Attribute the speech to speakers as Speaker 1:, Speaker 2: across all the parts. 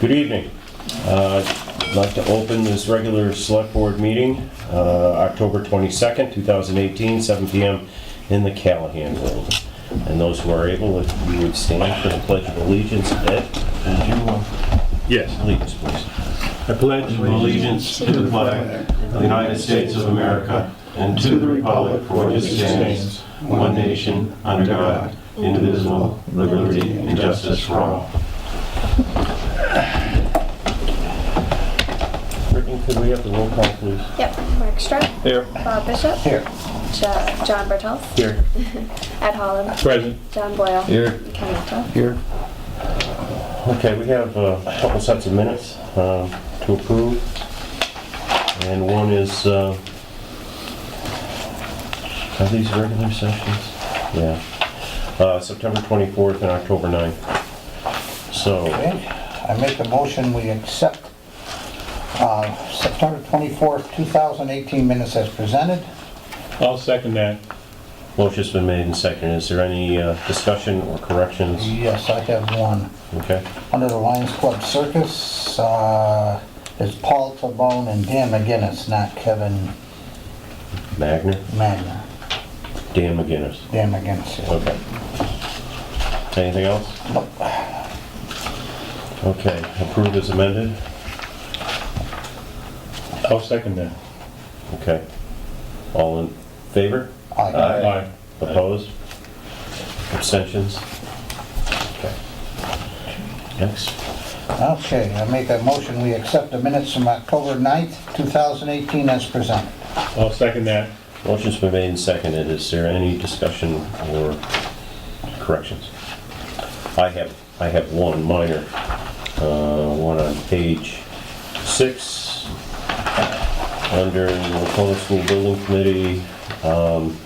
Speaker 1: Good evening. Uh, I'd like to open this regular Select Board meeting, uh, October 22nd, 2018, 7 PM in the Callahan Building. And those who are able, if you would stand for the Pledge of Allegiance, Ed, would you
Speaker 2: Yes.
Speaker 1: lead us, please? I pledge allegiance to the flag of the United States of America and to the republic for which it stands, one nation, under God, indivisible, with liberty and justice for all. Brittany, could we have the roll call, please?
Speaker 3: Yep, Mark Strah,
Speaker 2: Here.
Speaker 3: Bob Bishop,
Speaker 1: Here.
Speaker 3: Jo- John Bertels,
Speaker 1: Here.
Speaker 3: Ed Holland,
Speaker 2: Present.
Speaker 3: John Boyle,
Speaker 2: Here.
Speaker 3: Ken Utah.
Speaker 2: Here.
Speaker 1: Okay, we have uh, a couple sets of minutes um, to approve. And one is, uh, are these regular sessions? Yeah. Uh, September 24th and October 9th. So,
Speaker 4: Okay, I make a motion, we accept uh, September 24th, 2018 minutes as presented.
Speaker 2: I'll second that.
Speaker 1: motion's been made and seconded. Is there any uh, discussion or corrections?
Speaker 4: Yes, I have one.
Speaker 1: Okay,
Speaker 4: Under the Lions Club Circus, uh, it's Paul Tabone and Dan McGinnis, not Kevin
Speaker 1: Magner,
Speaker 4: Magna.
Speaker 1: Dan McGinnis.
Speaker 4: Dan McGinnis. yeah.
Speaker 1: Okay. Anything else?
Speaker 4: Nope.
Speaker 1: Okay, approved as amended?
Speaker 2: I'll second that.
Speaker 1: Okay. All in favor?
Speaker 4: Aye.
Speaker 2: Aye.
Speaker 1: Opposed? Abstentions? Okay. Next.
Speaker 4: Okay, I make a motion, we accept the minutes from October 9th, 2018 as presented.
Speaker 2: I'll second that.
Speaker 1: Motion's been made and seconded. Is there any discussion or corrections? I have, I have one minor, uh, one on page six, under the Lacona School Building Committee. um,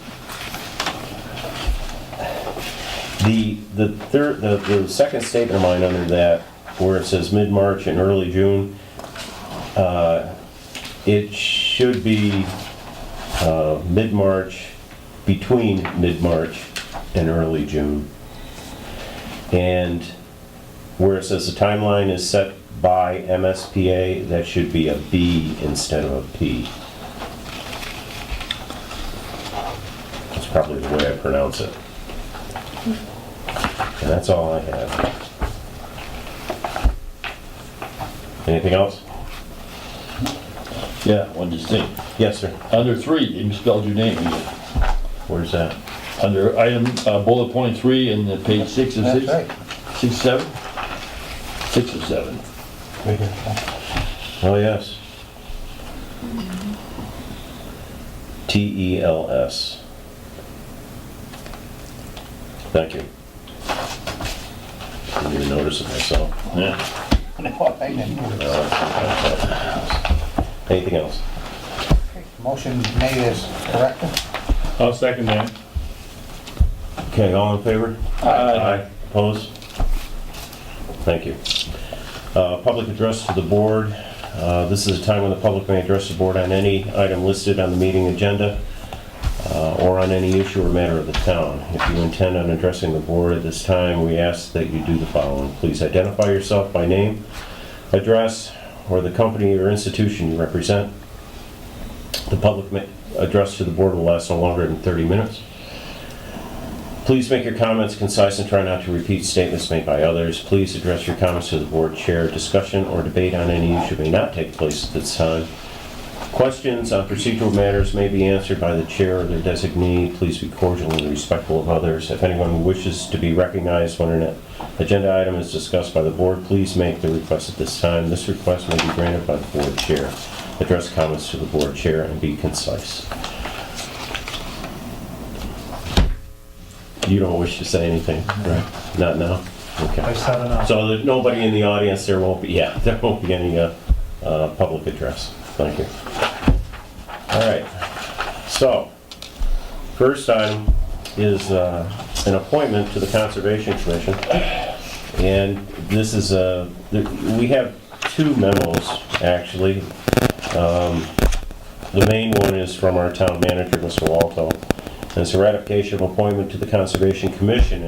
Speaker 1: The, the third, the, the second statement of mine under that, where it says mid-March and early June, uh, it should be uh, mid-March, between mid-March and early June. And where it says the timeline is set by MSPA, that should be a B instead of a P. That's probably the way I pronounce it. And that's all I have. Anything else?
Speaker 5: Yeah, one distinct.
Speaker 1: Yes, sir.
Speaker 5: Under three, you misspelled your name. again.
Speaker 1: Where's that?
Speaker 5: Under item, uh, bullet point three in the page six of
Speaker 4: That's
Speaker 5: six.
Speaker 4: right.
Speaker 5: Six, seven? Six of seven.
Speaker 1: Oh, yes. T E L S. Thank you. Didn't even notice it myself.
Speaker 5: Yeah.
Speaker 4: I didn't do it.
Speaker 1: Anything else?
Speaker 4: Motion made as corrected.
Speaker 2: I'll second that.
Speaker 1: Okay, all in favor?
Speaker 2: Aye.
Speaker 1: Opposed? Thank you. Uh, Public address to the board. Uh, This is a time when the public may address the board on any item listed on the meeting agenda uh, or on any issue or matter of the town. If you intend on addressing the board at this time, we ask that you do the following. Please identify yourself by name, address, or the company or institution you represent. The public ma- address to the board will last no longer than 30 minutes. Please make your comments concise and try not to repeat statements made by others. Please address your comments to the board chair. Discussion or debate on any issue may not take place at this time. Questions on procedural matters may be answered by the chair or their designee. Please be cordial and respectful of others. If anyone who wishes to be recognized when an agenda item is discussed by the board, please make the request at this time. This request may be granted by the board chair. Address comments to the board chair and be concise. You don't wish to say anything, right? Not now? Okay.
Speaker 6: I said
Speaker 4: Uh,
Speaker 6: enough.
Speaker 1: So there's nobody in the audience, there won't be, yeah, there won't be any uh, uh, public address. Thank you. All right, so, first item is uh, an appointment to the Conservation Commission. And this is, uh, th- we have two memos, actually. Um, The main one is from our town manager, Mr. Walto. And it's a ratification of appointment to the Conservation Commission